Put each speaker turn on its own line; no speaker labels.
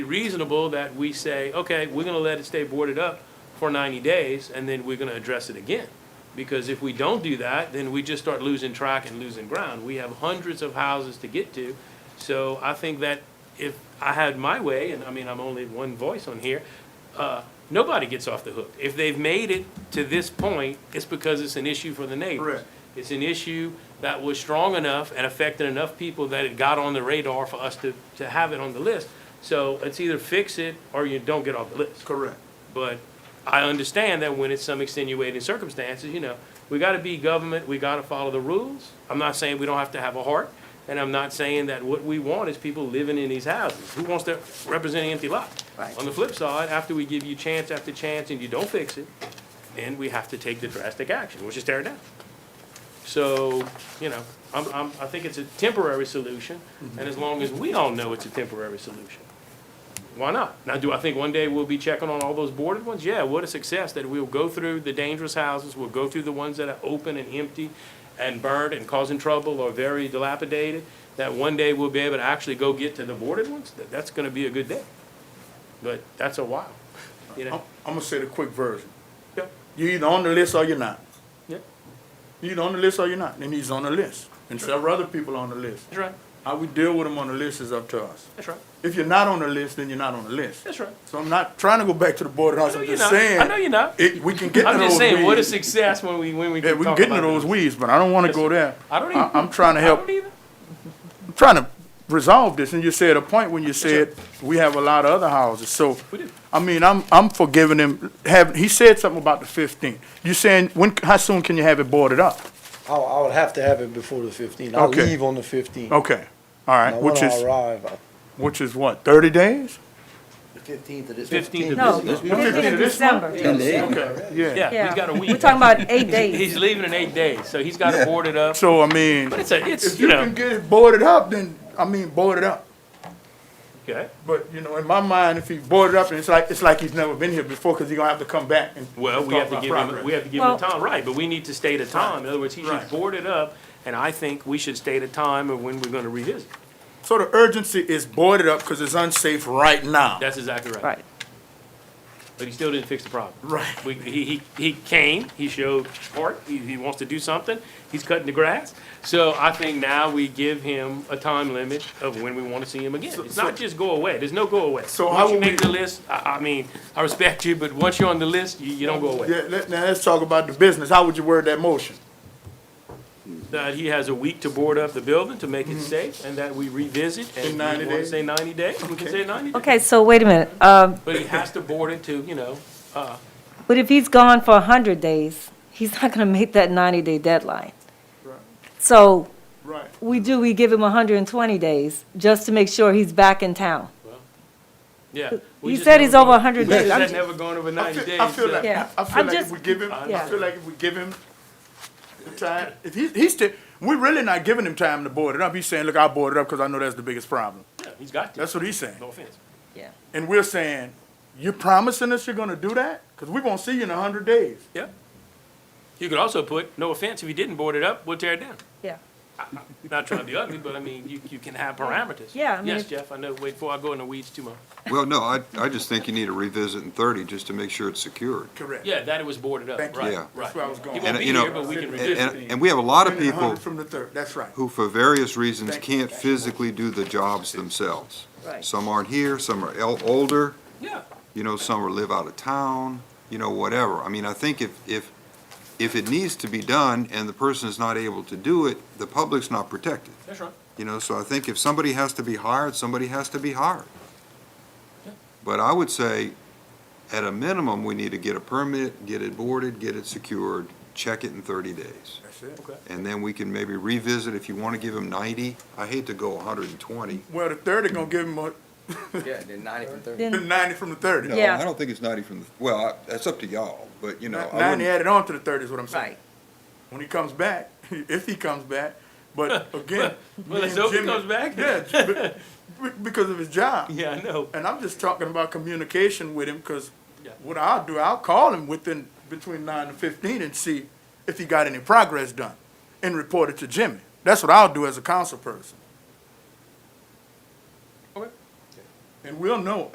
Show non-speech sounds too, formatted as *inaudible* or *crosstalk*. reasonable that we say, okay, we're gonna let it stay boarded up for ninety days, and then we're gonna address it again. Because if we don't do that, then we just start losing track and losing ground. We have hundreds of houses to get to. So I think that if I had my way, and I mean, I'm only one voice on here, uh, nobody gets off the hook. If they've made it to this point, it's because it's an issue for the neighbors.
Correct.
It's an issue that was strong enough and affected enough people that it got on the radar for us to, to have it on the list. So it's either fix it or you don't get off the list.
Correct.
But I understand that when it's some extenuating circumstances, you know, we gotta be government, we gotta follow the rules. I'm not saying we don't have to have a heart, and I'm not saying that what we want is people living in these houses. Who wants to represent an empty lot?
Right.
On the flip side, after we give you chance after chance and you don't fix it, then we have to take the drastic action, which is tear it down. So, you know, I'm, I'm, I think it's a temporary solution, and as long as we all know it's a temporary solution, why not? Now, do I think one day we'll be checking on all those boarded ones? Yeah, what a success that we'll go through the dangerous houses, we'll go through the ones that are open and empty and burned and causing trouble or very dilapidated, that one day we'll be able to actually go get to the boarded ones? That- That's gonna be a good day. But that's a while, you
I'm,
know?
I'm gonna say the quick version.
Yeah,
You're either on the list or you're not.
yeah,
You're either on the list or you're not, and he's on the list. And several other people on the list.
that's right,
How we deal with them on the list is up to us.
that's right,
If you're not on the list, then you're not on the list.
that's right.
So I'm not trying to go back to the board of
I
Health,
know
I'm
you're
just
not, I know
saying,
you're not.
it, we can get to
I'm just
those
saying, what a
weeds.
success when we, when we
Yeah,
can
we can
talk
get into
about
those
this.
weeds, but I don't wanna
Yes,
go
sir.
there.
I don't
I-
even-
I'm trying to
I
help,
don't either.
I'm trying to resolve this, and you said a point when you said, we have a lot of other houses, so.
We do.
I mean, I'm, I'm forgiving him, have, he said something about the fifteenth. You saying, when, how soon can you have it boarded up?
I, I would have to have it before the fifteenth. I'll
Okay.
leave on the fifteenth.
Okay, all right, which
When I
is,
arrive, I-
which is what, thirty days?
The fifteenth of this.
15th of
No,
this month.
fifteenth of December.
Ten days.
Okay, yeah.
Yeah, he's got a week.
We're talking about eight
He's
days.
leaving in eight days, so he's got
Yeah.
it boarded up.
So, I mean,
But it's a, it's,
if
you
you
know,
can get it boarded up, then, I mean, boarded up.
okay,
But, you know, in my mind, if he boarded up, it's like, it's like he's never been here before, cause he's gonna have to come back and.
well, we have to give him, we have to give him a
Well-
time, right, but we need to state a time. In other words, he should
Right.
board it up, and I think we should state a time of when we're gonna revisit.
So the urgency is boarded up, cause it's unsafe right now.
That's exactly right.
Right.
But he still didn't fix the problem.
Right.
We, he, he, he came, he showed heart, he, he wants to do something, he's cutting the grass. So I think now we give him a time limit of when we wanna see him again. It's
so-
not just go away, there's no go away.
So how
Once you
will
make
we-
the list, I, I mean, I respect you, but once you're on the list, you, you don't go away.
Yeah, let, now let's talk about the business. How would you word that motion?
That he has a week to board up the building to make it safe, and that we revisit, and
In
if we
90
wanna
Mm-hmm. days?
say ninety days, we can say ninety days.
Okay, so wait a minute. Um,
But he has to board it to, you know, uh,
but if he's gone for hundred days, he's not gonna make that ninety-day deadline.
Right.
So
Right.
we do, we give him hundred and twenty days just to make sure he's back in town.
yeah. We
He
just
said
never
he's over
go-
hundred
We just
days.
I'm
had
just-
never gone over
I
ninety days.
feel, I feel
so-
like,
Yeah.
I feel
I'm
like if
just-
we give him, I
yeah.
feel like if we give him the time, if he, he's still, we're really not giving him time to board it up. He's saying, look, I'll board it up because I know that's the biggest problem.
Yeah, He's got to,
That's what he's saying.
no offense.
Yeah.
And we're saying, you're promising us you're gonna do that? Cause we won't see you in a hundred days.
Yeah. You could also put, no offense, if you didn't board it up, we'll tear it down.
Yeah.
Not trying to be ugly, but I mean, you, you can have parameters.
Yeah, I mean,
Yes,
if-
Jeff, I know, wait before I go in the weeds too much.
Well, no, I, I just think you need to revisit in 30 just to make sure it's secured.
Correct.
Yeah, that it was boarded up,
Thank you.
right,
Yeah.
That's
right.
where I was going.
He
And,
won't be
you know,
here, but we can
and-
And,
revisit
and, and we have a lot of
Winning a
people
hundred from the third, that's right.
who, for various reasons,
Thank you.
can't physically do the jobs themselves.
Right.
Some aren't here, some are el- older,
Yeah,
you know, some are live out of town, you know, whatever. I mean, I think if, if, if it needs to be done and the person is not able to do it, the public's not protected,
that's right.
you know? So I think if somebody has to be hired, somebody has to be hired. But I would say, at a minimum, we need to get a permit, get it boarded, get it secured, check it in 30 days.
That's it.
And then we can maybe revisit if you want to give them 90. I hate to go 120.
Well, the thirty gonna give him a
Yeah, then ninety from thirty.
Then,
ninety from the thirty.
No,
Yeah.
I don't think it's 90 from, the well, I- that's up to y'all, but you know. I
Ninety
wouldn't-
added on to the thirty is what I'm saying.
right.
when he comes back, *laughs* if he comes back. But again,
*laughs* Well,
me
let's
and
hope he
Jimmy-
comes back. *laughs*
Yeah, be- be- because of his job.
Yeah, I know.
And I'm just talking about communication with him because
Yeah.
what I'll do, I'll call him within between nine and fifteen and see if he got any progress done, and report it to Jimmy. That's what I'll do as a council person.
Okay.
And we'll know